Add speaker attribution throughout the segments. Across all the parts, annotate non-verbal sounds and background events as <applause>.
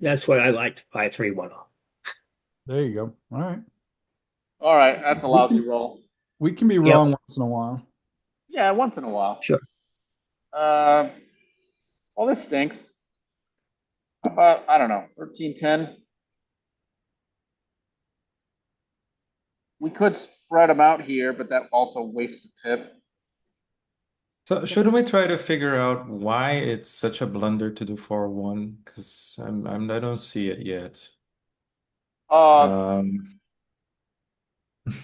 Speaker 1: That's what I liked, five, three, one off.
Speaker 2: There you go. All right.
Speaker 3: All right, that's a lousy roll.
Speaker 2: We can be
Speaker 1: Yep.
Speaker 2: wrong once in a while.
Speaker 3: Yeah, once in a while.
Speaker 1: Sure.
Speaker 3: Uh, well, this stinks. How about I don't know, thirteen ten. We could spread them out here, but that also wastes a pip.
Speaker 4: So shouldn't we try to figure out why it's such a blunder to do four one? Because I'm I'm I don't see it yet.
Speaker 3: Uh,
Speaker 4: Um, <laughs>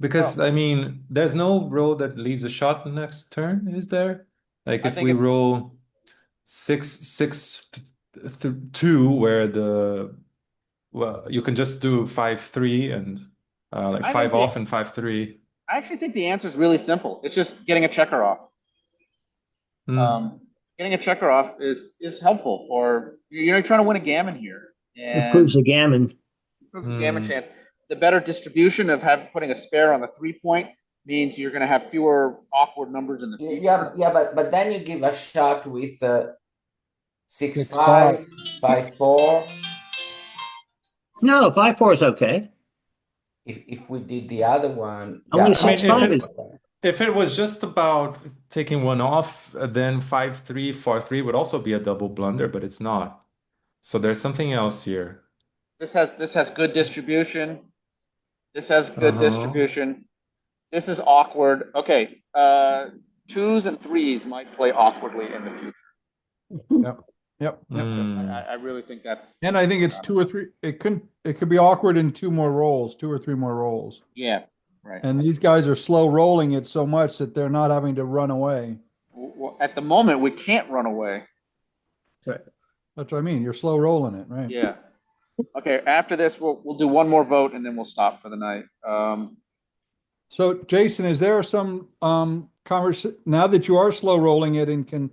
Speaker 4: because I mean, there's no roll that leaves a shot the next turn, is there? Like
Speaker 3: I
Speaker 4: if
Speaker 3: think
Speaker 4: we
Speaker 3: it's-
Speaker 4: roll six six th- th- two, where the well, you can just do five three and uh, like
Speaker 3: I
Speaker 4: five
Speaker 3: think
Speaker 4: off and five three.
Speaker 3: I actually think the answer is really simple. It's just getting a checker off.
Speaker 4: Hmm.
Speaker 3: Um, getting a checker off is is helpful for you're trying to win a gammon here. And
Speaker 1: Improves the gammon.
Speaker 3: improves the gamma
Speaker 4: Mm.
Speaker 3: chance. The better distribution of having putting a spare on the three point means you're going to have fewer awkward numbers in the future.
Speaker 5: Yeah, yeah, but but then you give a shot with uh, six
Speaker 2: Six,
Speaker 5: five, five four.
Speaker 1: No, five, four is okay.
Speaker 5: If if we did the other one,
Speaker 1: I mean,
Speaker 5: yeah,
Speaker 4: six,
Speaker 5: I-
Speaker 4: five is- If it was just about taking one off, uh, then five three four three would also be a double blunder, but it's not. So there's something else here.
Speaker 3: This has this has good distribution. This has good
Speaker 4: Uh-huh.
Speaker 3: distribution. This is awkward. Okay, uh, twos and threes might play awkwardly in the future.
Speaker 2: Yep. yep, yep.
Speaker 3: I
Speaker 4: Hmm.
Speaker 3: I, I really think that's
Speaker 2: And I think it's two or three. It could it could be awkward in two more rolls, two or three more rolls.
Speaker 3: yeah, right.
Speaker 2: And these guys are slow rolling it so much that they're not having to run away.
Speaker 3: W- w- At the moment, we can't run away.
Speaker 2: That's what I mean. You're slow rolling it, right?
Speaker 3: Yeah. Okay. After this, we'll we'll do one more vote and then we'll stop for the night. Um,
Speaker 2: So Jason, is there some um convers now that you are slow rolling it and can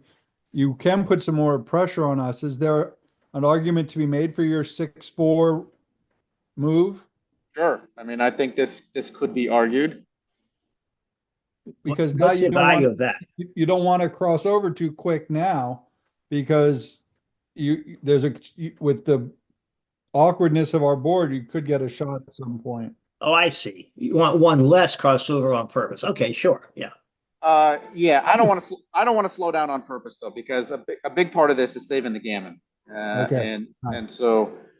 Speaker 2: you can put some more pressure on us? Is there an argument to be made for your six four move?
Speaker 3: Sure. I mean, I think this, this could be argued.
Speaker 2: Because now
Speaker 1: What's
Speaker 2: you
Speaker 1: the
Speaker 2: don't want-
Speaker 1: value of that?
Speaker 2: you, you don't want to cross over too quick now because you there's a you- with the awkwardness of our board, you could get a shot at some point.
Speaker 1: Oh, I see. You want one less crossover on purpose. Okay, sure, yeah.
Speaker 3: Uh, yeah, I don't want to, I don't want to slow down on purpose though, because a, bi- a big part of this is saving the gammon. Uh,
Speaker 2: Okay.
Speaker 3: and, and so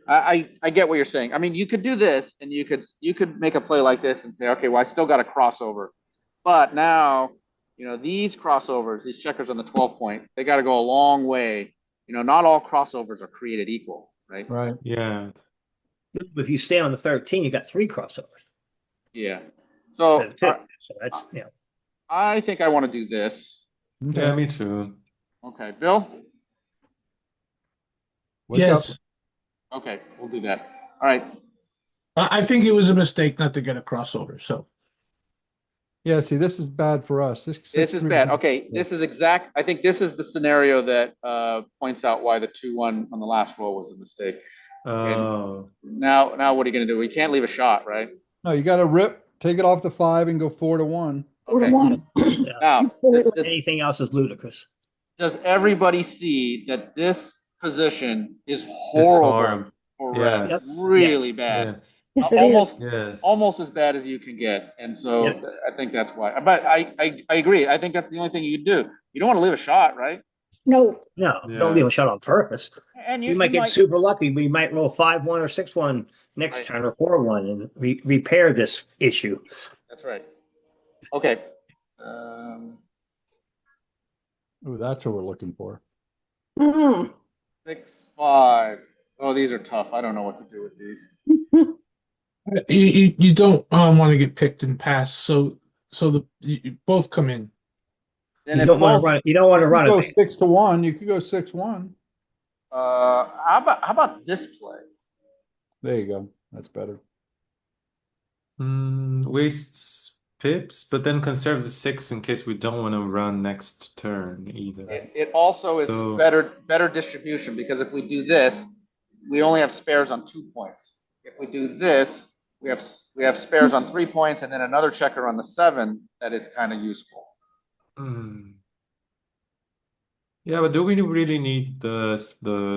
Speaker 3: I, I, I get what you're saying. I mean, you could do this and you could, you could make a play like this and say, okay, well, I still got a crossover. But now, you know, these crossovers, these checkers on the 12 point, they got to go a long way. You know, not all crossovers are created equal, right?
Speaker 2: Right.
Speaker 4: Yeah.
Speaker 1: If you stay on the thirteen, you got three crossovers.
Speaker 3: Yeah. So
Speaker 1: instead
Speaker 3: Oh, I,
Speaker 1: of two. So that's, you know,
Speaker 3: I think I want to do this.
Speaker 4: Yeah, me too.
Speaker 3: Okay, Bill?
Speaker 2: Wake up.
Speaker 6: Yes,
Speaker 3: Okay, we'll do that. All right,
Speaker 6: I, I think it was a mistake not to get a crossover, so.
Speaker 2: Yeah, see, this is bad for us. This,
Speaker 3: this is bad. Okay, this is exact, I think this is the scenario that uh, points out why the two one on the last roll was a mistake.
Speaker 4: Oh,
Speaker 3: Now, now what are you gonna do? We can't leave a shot, right?
Speaker 2: No, you gotta rip, take it off the five and go four to one.
Speaker 3: Okay. Now, does- does,
Speaker 1: anything else is ludicrous.
Speaker 3: does everybody see that this position is
Speaker 4: this
Speaker 3: horrible?
Speaker 4: harm.
Speaker 3: for
Speaker 4: Yeah.
Speaker 3: Reds?
Speaker 1: Yep.
Speaker 3: Really bad.
Speaker 4: Yeah.
Speaker 7: Yes, it is.
Speaker 3: Almost,
Speaker 4: Yes.
Speaker 3: almost as bad as you can get. And so
Speaker 1: Yep.
Speaker 3: I think that's why. But I, I, I agree. I think that's the only thing you can do. You don't want to leave a shot, right?
Speaker 7: No,
Speaker 1: No,
Speaker 4: Yeah.
Speaker 1: don't leave a shot on purpose.
Speaker 3: And you,
Speaker 1: We might
Speaker 3: you
Speaker 1: get super lucky. We might roll five, one or six, one
Speaker 3: Right.
Speaker 1: next turn or four, one and re- repair this issue.
Speaker 3: That's right. Okay. Um,
Speaker 2: Ooh, that's what we're looking for.
Speaker 7: Mm-mm.
Speaker 3: six, five. Oh, these are tough. I don't know what to do with these.
Speaker 6: You, you, you don't, um, wanna get picked and passed, so, so the, you, you both come in.
Speaker 3: Then
Speaker 1: You
Speaker 3: if
Speaker 1: don't want
Speaker 3: both-
Speaker 1: to run, you don't want to
Speaker 2: You
Speaker 1: run
Speaker 2: could Go
Speaker 1: it.
Speaker 2: six to one, you could go six one.
Speaker 3: Uh, how about how about this play?
Speaker 2: There you go. That's better.
Speaker 4: Hmm, wastes pips, but then conserves the six in case we don't want to run next turn either.
Speaker 3: It, it also is
Speaker 4: So-
Speaker 3: better better distribution because if we do this, we only have spares on two points. If we do this, we have s- we have spares on three points and then another checker on the seven that is kind of useful.
Speaker 4: Mm. Hmm. Yeah, but do we really need the the